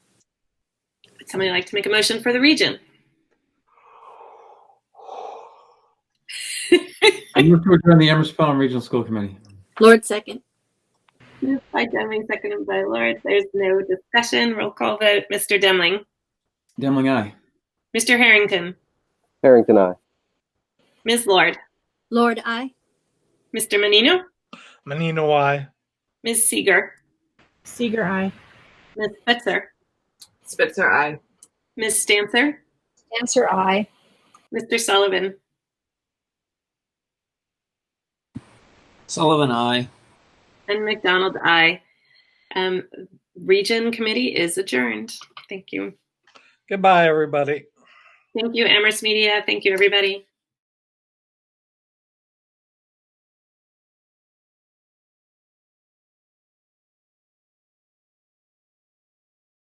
Somebody like to make a motion for the region? I move to adjourn the Amherst Pelham Regional School Committee. Lord second. Moved by Demling, seconded by Lord. There's no discussion. Roll call vote. Mr. Demling, Demling, aye. Mr. Harrington, Harrington, I. Ms. Lord, Lord I. Mr. Menino, Menino, I. Ms. Seeger, Seeger, I. Ms. Spitzer, Spitzer, aye. Ms. Stancer, Answer I. Mr. Sullivan, Sullivan, I. and McDonald, I. Um, region committee is adjourned. Thank you. Goodbye, everybody. Thank you, Amherst Media. Thank you, everybody.